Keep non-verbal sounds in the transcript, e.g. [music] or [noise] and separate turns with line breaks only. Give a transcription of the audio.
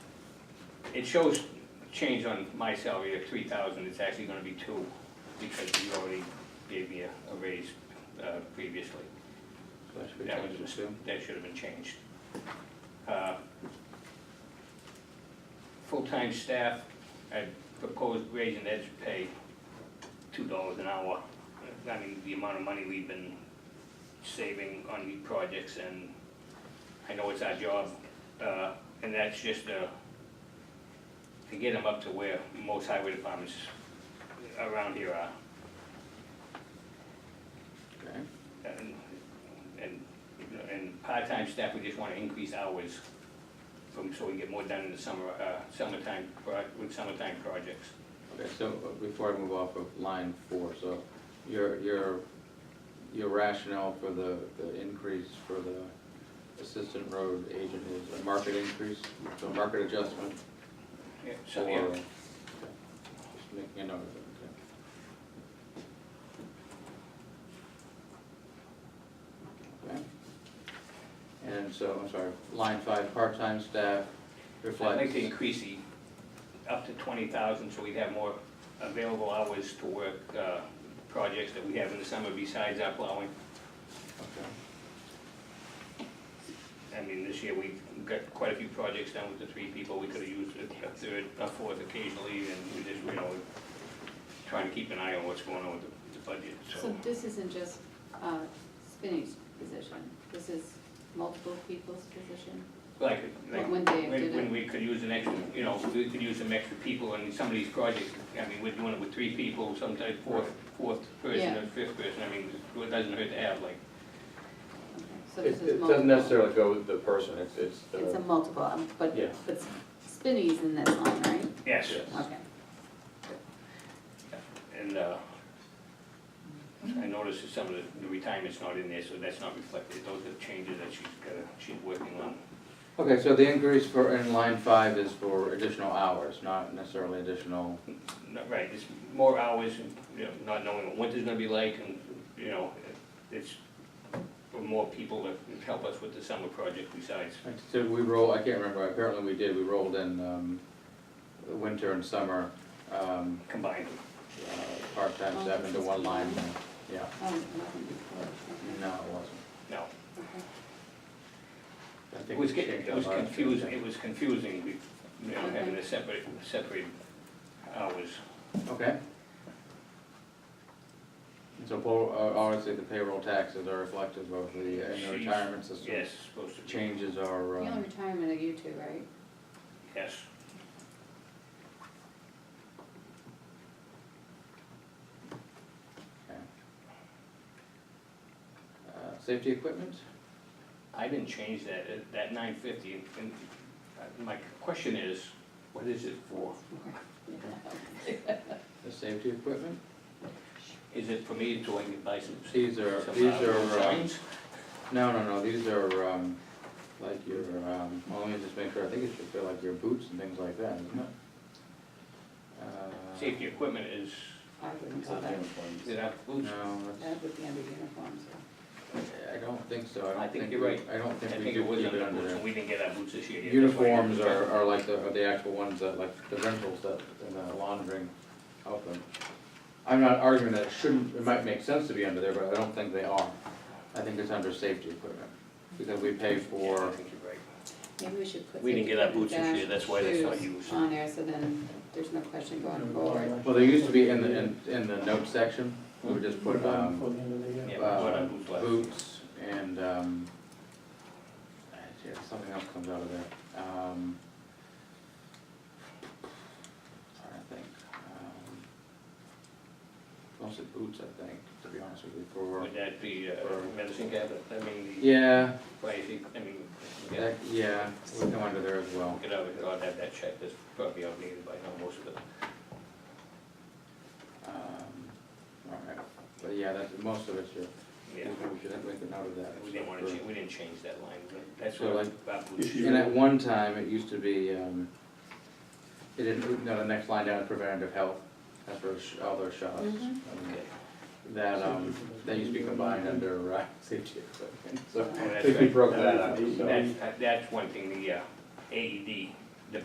it shows change on my salary of three thousand, it's actually gonna be two, because you already gave me a a raise uh, previously. That was, a mis- that should have been changed. Uh, Full-time staff, I proposed raising Ed's pay two dollars an hour. I mean, the amount of money we've been saving on these projects, and I know it's our job, uh, and that's just uh, to get them up to where most highway departments around here are.
Okay.
And, and, and part-time staff, we just wanna increase hours from, so we can get more done in the summer, uh, summertime, pro- with summertime projects.
Okay, so uh, before I move off of line four, so your, your, your rationale for the, the increase for the assistant road agent is a market increase, so market adjustment?
Yeah,
or
So, yeah,
okay, Just making a note of it, okay. Okay. And so, I'm sorry, line five, part-time staff
I'd
reflects.
like to increase the, up to twenty thousand, so we'd have more available hours to work, uh, projects that we have in the summer besides our plowing.
Okay.
I mean, this year, we've got quite a few projects done with the three people, we could've used a third, a fourth occasionally, and we just, you know, trying to keep an eye on what's going on with the- the budget,
So this isn't just uh, Spinney's position, this is multiple people's position?
Like, like,
When they
when,
did
when
it?
we could use an extra, you know, we could use some extra people in some of these projects, I mean, we're doing it with three people, sometimes fourth, fourth person
Yeah.
or fifth person, I mean, it doesn't hurt to have, like,
Okay, So this is
It, it
multiple.
doesn't necessarily go with the person, it's, it's
It's a
the,
multiple, um, but,
Yeah.
but Spinney's in this line, right?
yes,
Yes.
Okay.
and, uh, I noticed that some of the- the retirement's not in there, so that's not reflected, those are changes that she's gotta, she's working on.
Okay, so the increase for, in line five is for additional hours, not necessarily additional,
Not right, it's more hours, and, you know, not knowing what winter's gonna be like, and, you know, it's for more people to help us with the summer project besides
like, so we roll, I can't remember, apparently we did, we rolled in, um, winter and summer, um,
combined.
uh, part-time
Oh,
staff
this
into
is
one line,
combined.
yeah,
Oh, it wasn't before, okay,
no, it wasn't.
No,
okay.
I
it
think
was,
we
get-
changed
it was
our-
confusing, it was confusing, we- you know, having the separate, separate hours.
Okay. And So, po- uh, obviously, the payroll taxes are reflective of the, uh, in
She's-
the retirement system.
Yes, supposed to change,
Changes are,
The only
um,
retirement of you two, right?
yes.
okay. Uh, safety equipment?
I didn't change that, uh, that nine fifty, and, and uh, my question is, what is it for?
The safety equipment?
Is it for me to, I can buy some?
These are,
some,
these
uh,
are, um,
signs?
no, no, no, these are, um, like your, um, well, let me just make sure, I think it should feel like your boots and things like that, isn't it? Uh,
Safety equipment is,
I wouldn't call that,
did I lose?
No, that's,
that would be under uniforms,
I don't think so, I
I
don't
think
think,
you're
we-
right.
I don't
I
think we
think
do
it was
keep
under
it
the
under
boots,
there.
and we didn't get our boots this year. yet, that's why I
Uniforms
didn't-
are, are like the, are the actual ones that, like, the rentals that, uh, in the laundering help them. I'm not arguing that it shouldn't, it might make sense to be under there, but I don't think they are. I think it's under safety equipment, because we pay
Yeah, I
for,
think you're right.
maybe we should put.
We didn't get our boots this
dash
year, that's why that's not
shoes
used.
On there, so then there's no question going
Mm-hmm.
forward.
well, they used to be in the, in, in the note section, we would just put, um,
Yeah, we bought our
uh,
boots last year.
boots and, um, ah, shit, something else comes out of there, um. Trying to think, um, mostly boots, I think, to be honest with you, for,
Would that be uh,
Or-
medicine cabinet, I mean, the,
yeah,
why is it- I mean, yeah,
that, yeah, would come under there as well.
get out, I'll have that checked, that's probably outdated by now, most of it.
Um, all right, but yeah, that's, most of it's your,
Yeah,
we should make a note of that.
we didn't wanna
for-
change, we didn't change that line, but that's
So,
what
like,
our boots.
And at one time, it used to be, um, it didn't, no, the next line down is preventative health, that's for sh- all those shots.
Mhm.
Um, That, um, that used to be combined under, uh, [laughs] safety equipment, so
Oh,
I
that's
think we
right.
broke that up, so.
That's, that's one thing, the uh, AED,